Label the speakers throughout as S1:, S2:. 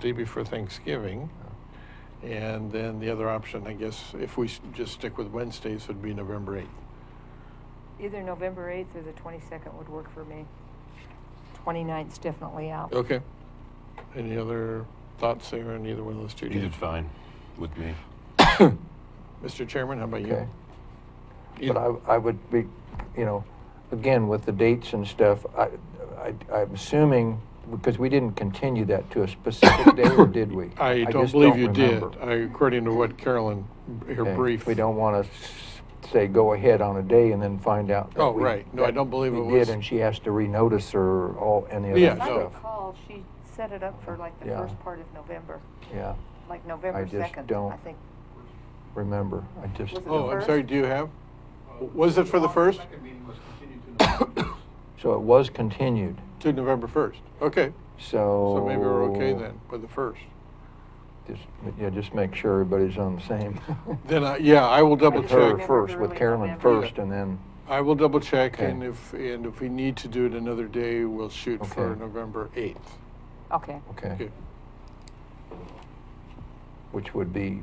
S1: day before Thanksgiving. And then the other option, I guess, if we s- just stick with Wednesdays, would be November 8th.
S2: Either November 8th or the 22nd would work for me. 29th's definitely out.
S1: Okay. Any other thoughts there on either one of those two days?
S3: Either's fine with me.
S1: Mr. Chairman, how about you?
S4: Okay. But I, I would be, you know, again, with the dates and stuff, I, I, I'm assuming, because we didn't continue that to a specific day, or did we?
S1: I don't
S4: just
S1: believe you did.
S4: remember.
S1: I- According to what Carolyn, her
S4: Okay.
S1: brief.
S4: We don't want to say, go ahead on a day and then find out. that
S1: Oh,
S4: we-
S1: right. No, I
S4: that
S1: don't believe
S4: we
S1: it
S4: did,
S1: was-
S4: And she has to renotice or all, any
S1: Yeah,
S4: other
S2: If I
S1: no.
S4: stuff.
S2: recall, she set it up for like the
S4: Yeah.
S2: first part of November,
S4: Yeah,
S2: like November
S4: just
S2: 2nd,
S4: don't-
S2: I think.
S4: remember, I just.
S2: Was it the
S1: Oh, I'm
S2: first?
S1: sorry, do you have? Was it for the first?
S4: So it was continued,
S1: To November 1st. Okay.
S4: so.
S1: So maybe we're okay then with the first.
S4: Just, yeah, just make sure everybody's on the same.
S1: Then, I- yeah, I will double
S4: With
S1: check.
S4: her
S2: November,
S4: first, with
S2: early
S4: Carolyn
S2: November.
S4: first, and then,
S1: I will double check
S4: Okay.
S1: and if, and if we need to do it another day, we'll shoot for
S4: Okay.
S1: November 8th.
S2: Okay.
S4: okay,
S1: Okay.
S4: which would be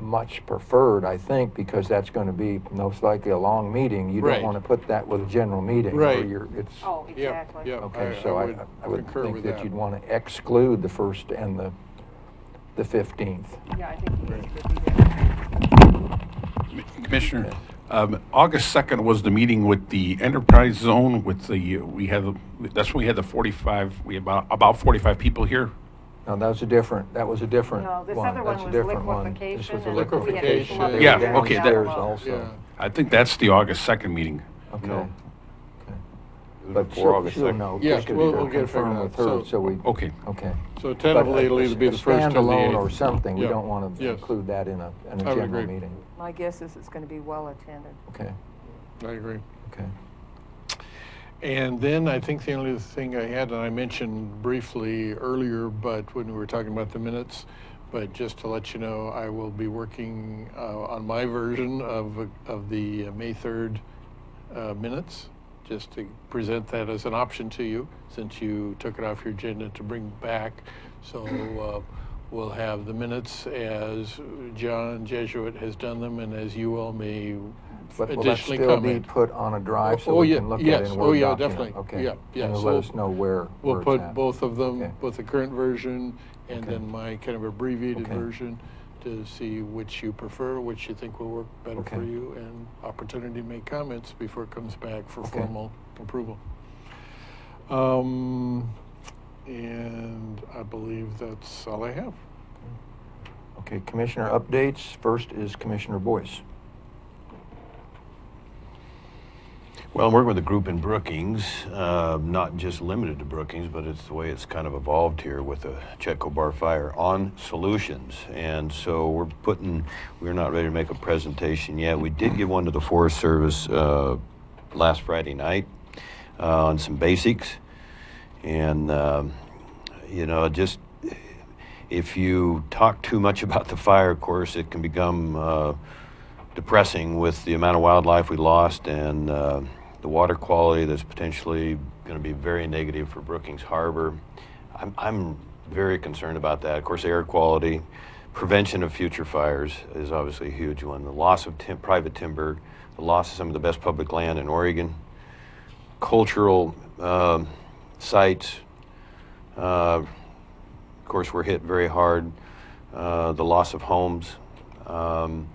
S4: much preferred, I think, because that's going to be most likely a long meeting. You
S1: Right.
S4: don't want to put that with a general meeting. where
S1: Right.
S4: you're- It's,
S2: Oh,
S1: Yeah,
S2: exactly.
S1: yeah.
S4: okay, so I, I would
S1: concur
S4: think
S1: with
S4: that you'd want to exclude the first and the, the 15th.
S2: Yeah, I think you
S1: Right.
S2: guys could do that.
S5: Commissioner, um, August 2nd was the meeting with the enterprise zone with the, we had, that's when we had the 45, we had about, about 45 people here.
S4: No, that was a different, that was a different
S2: No,
S4: one.
S2: this other one
S4: That's a
S2: was
S4: different one. This
S2: liquefaction
S4: was a
S2: and we had
S1: people
S4: liquefaction.
S1: up
S4: They were
S5: Yeah, down okay, that
S4: Downstairs
S2: low.
S4: also,
S1: Yeah.
S5: I think that's the August 2nd meeting.
S4: okay.
S3: No.
S4: But
S3: Before
S4: she'll,
S3: August
S4: she'll
S3: 2nd.
S4: know.
S1: Yeah,
S4: because
S1: we'll-
S4: it'll
S1: we'll get it
S4: confirm
S1: figured
S4: with
S1: out.
S4: her,
S1: So-
S4: So we,
S5: Okay.
S4: okay.
S1: So
S4: But
S1: tentatively,
S4: a-
S1: it'll either be
S4: a
S1: the first or the 8th.
S4: Standalone or something, we
S1: Yeah.
S4: don't want to
S1: Yes.
S4: include that in a, in a
S1: I would
S4: general
S1: agree.
S4: meeting.
S2: My guess is it's going to be well attended.
S4: Okay,
S1: I agree.
S4: okay.
S1: And then I think the only thing I had, and I mentioned briefly earlier, but when we were talking about the minutes, but just to let you know, I will be working uh, on my version of, of the uh, May 3rd uh, minutes, just to present that as an option to you, since you took it off your agenda to bring back. So uh, we'll have the minutes as John Jesuit has done them and as you all may
S4: But will that
S1: additionally
S4: still be
S1: comment.
S4: put on a drive
S1: Oh,
S4: so we
S1: yeah,
S4: can look at it
S1: yes.
S4: in a
S1: Oh,
S4: Word
S1: yeah,
S4: document?
S1: definitely.
S4: Okay.
S1: Yeah, yeah,
S4: And it'll
S1: so
S4: let us know where, where
S1: We'll
S4: it's
S1: put
S4: at.
S1: both of them,
S4: Okay.
S1: both the current version and
S4: Okay.
S1: then my kind of abbreviated
S4: Okay.
S1: version to see which you prefer, which you think will work better for
S4: Okay.
S1: you, and opportunity to make comments before it comes back for
S4: Okay.
S1: formal approval. Um, And I believe that's all I have.
S4: Okay, Commissioner updates. First is Commissioner Boyce.
S3: Well, I'm working with a group in Brookings, uh, not just limited to Brookings, but it's the way it's kind of evolved here with the Chetco Bar Fire on solutions. And so we're putting, we're not ready to make a presentation yet. We did give one to the Forest Service uh, last Friday night uh, on some basics. And, um, you know, just if you talk too much about the fire, of course, it can become. Uh, depressing with the amount of wildlife we lost and uh, the water quality that's potentially going to be very negative for Brookings Harbor. I'm, I'm very concerned about that. Of course, air quality, prevention of future fires is obviously a huge one. The loss of tim- private timber, the loss of some of the best public land in Oregon, cultural um, sites. Uh, of course, we're hit very hard. Uh, the loss of homes. Um,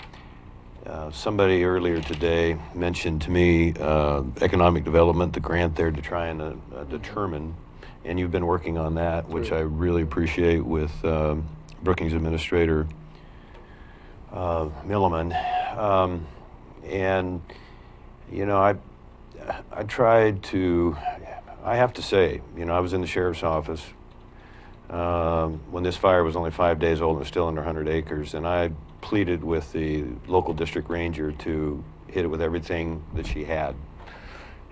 S3: uh, Somebody earlier today mentioned to me uh, economic development, the grant there to try and uh, uh, determine, and you've been working on that, which I really appreciate with um, Brookings Administrator uh, Milliman. Um, And, you know, I, I tried to, I have to say, you know, I was in the sheriff's office um, when this fire was only five days old and was still under 100 acres, and I pleaded with the local district ranger to hit it with everything that she had.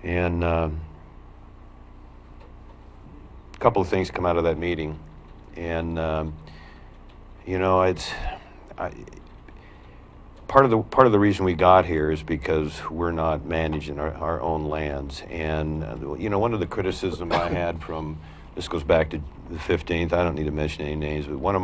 S3: And um, a couple of things come out of that meeting, and um, you know, it's I, part of the part of the reason we got here is because we're not managing our, our own lands, and uh, you know, one of the criticism I had from this goes back to the 15th. I don't need to mention any names, but one of